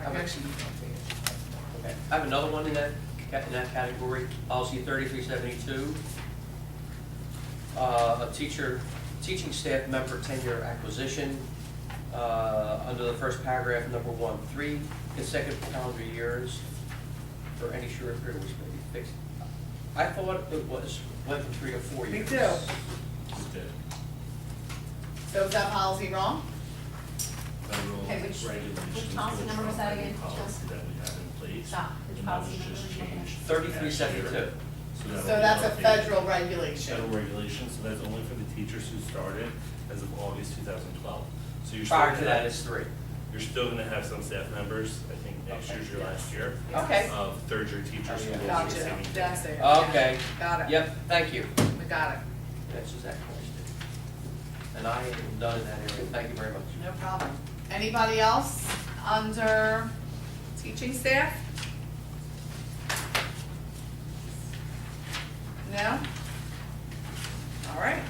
I've actually, Okay. I have another one in that, ca- in that category, policy thirty-three seventy-two. Uh, a teacher, teaching staff member tenure acquisition, uh, under the first paragraph, number one, three consecutive calendar years for any short period which may be fixed. I thought it was, went from three to four Me years. too. did. So is that policy wrong? Federal Okay, which- which regulations. policy which number was are that the again? Policy that we have in place. Stop. and Which that policy was number just was that again? changed Thirty-three last year. seventy-two. So that'll So be that's a updated. federal regulation. Federal regulation, so that's only for the teachers who started as of August two thousand twelve. So you're still Prior to gonna- that is three. You're still gonna have some staff members, I think next Okay. year's your Yes. last year, Okay, of third year teachers who Oh, will yeah. be gotcha, receiving. that's it. Okay. Got it, Yep, thank you. we got it, That's just that question. And I am done in that area. Thank you very much. no problem. Anybody else under teaching staff? No? All right,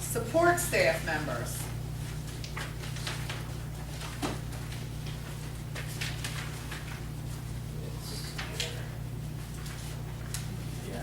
support staff members. Yeah.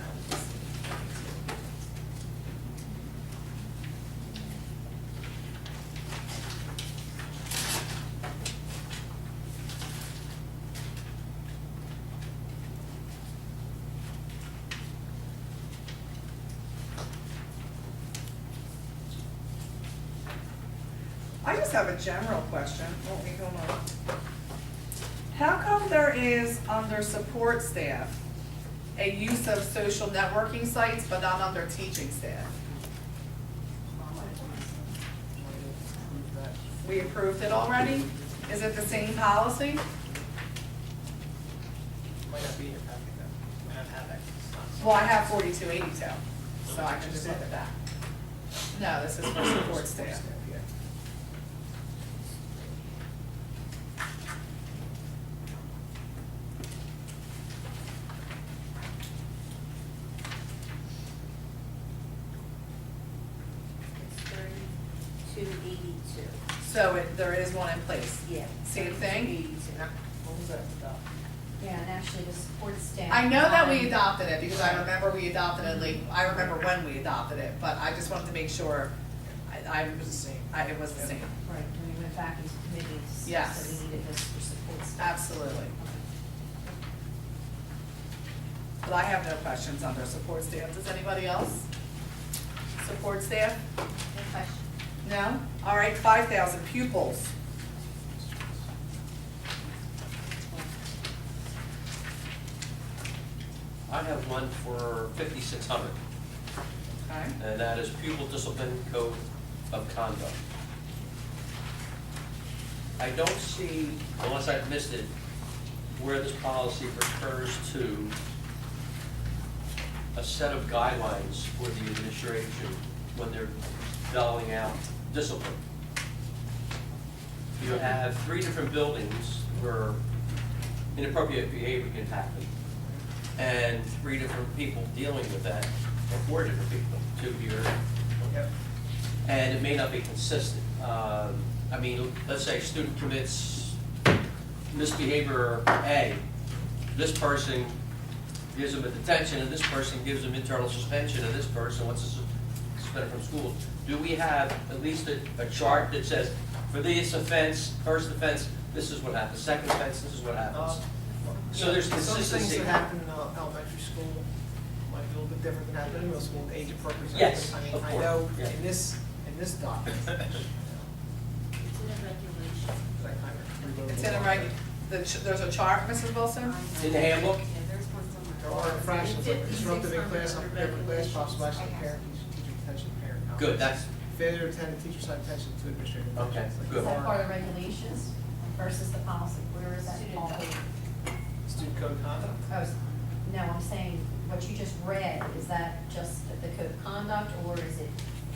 I just have a general question, won't we go on? How come there is under support staff, a use of social networking sites, but not under teaching staff. We approved it already? Is it the same policy? might not be in your packet though, I don't have that. Well, I have forty-two eighty-two, so I can just look at that. No, this is for support staff. Yeah. It's thirty-two eighty-two. So it, there is one in place. Yeah. Same thing? What was that about? Yeah, and actually the support staff. I know that we um, adopted it, because I remember we adopted it late, I remember when we adopted it, but I just wanted to make sure I, I was, I, it was the same. Right, when we went back into committee and discussed Yes. that we needed this for support staff. Absolutely. Okay. But I have no questions under support staff. Does anybody else? Support staff? Any questions? No? All right, five thousand pupils. I have one for fifty-six hundred, Okay. and that is pupil discipline code of conduct. I don't see, unless I've missed it, where this policy refers to a set of guidelines for the administration when they're doling out discipline. You have three different buildings where inappropriate behavior can happen, and three different people dealing with that, or four different people, two here, Yep. and it may not be consistent. Um, I mean, let's say a student commits misbehavior A, this person gives them a detention, and this person gives them internal suspension, and this person wants to sus- suspend from school. Do we have at least a, a chart that says, for this offense, first offense, this is what happens, second offense, this is what happens? So there's Um, Some things consistency. that happen in uh, elementary school might be a little bit different than happen in middle school, age appropriate. Yes, I mean, of I course, know yeah. in this, in this document, you know, It's in a regulation. that I kind of reloaded. It's in a reg, the, ch- there's a chart, Mrs. Wilson? In the handbook? Yeah, there's one somewhere. There are infractions, like disruptive in class, unprepared for class, possible action of Okay. parent, teacher detention, parent. contact. Good, that's, Failure to attend a teacher's side attention to administrative. Okay, actions, like good. Is that part of the bar, regulations versus the policy? Where is that? Student all? code. Student code of conduct. Oh, s- no, I'm saying, what you just read, is that just the code of conduct, or is it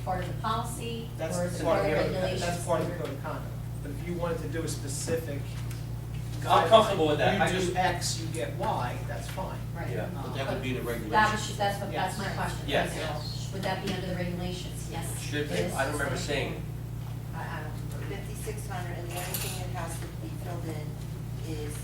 part of the policy? That's Or is it part part of of the, regulations? that's part of the code of conduct. But if you wanted to do a specific. I'm comfortable with that. I You do just- X, you get Y, that's fine. Right. Um, yeah. Uh, That would be the That was, regulation. that's what, that's my Yes. question. Yes. So, Would that be under the regulations? Uh, Yes. Should be. it is. I don't remember seeing. I, I don't remember. Fifty-six hundred, and the only thing that has to be filled in is